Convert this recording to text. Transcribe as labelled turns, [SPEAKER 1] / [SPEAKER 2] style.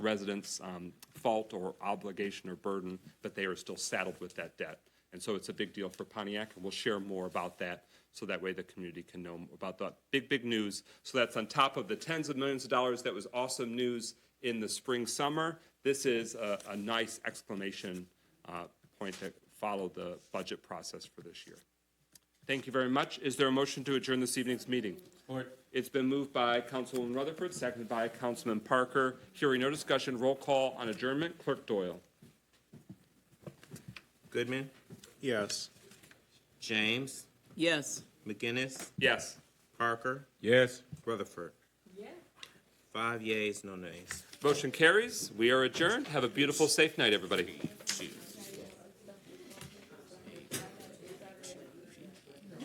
[SPEAKER 1] residents' um, fault or obligation or burden, but they are still saddled with that debt. And so it's a big deal for Pontiac, and we'll share more about that, so that way the community can know about that big, big news. So that's on top of the tens of millions of dollars that was awesome news in the spring, summer. This is a, a nice exclamation uh, point to follow the budget process for this year. Thank you very much. Is there a motion to adjourn this evening's meeting? It's been moved by Councilwoman Rutherford, seconded by Councilman Parker. Hearing no discussion, roll call on adjournment. Clerk Doyle.
[SPEAKER 2] Goodman,
[SPEAKER 3] Yes.
[SPEAKER 2] James,
[SPEAKER 4] Yes.
[SPEAKER 2] McGinnis,
[SPEAKER 1] Yes.
[SPEAKER 2] Parker,
[SPEAKER 3] Yes.
[SPEAKER 2] Rutherford. Five yeas, no nays.
[SPEAKER 1] Motion carries. We are adjourned. Have a beautiful, safe night, everybody.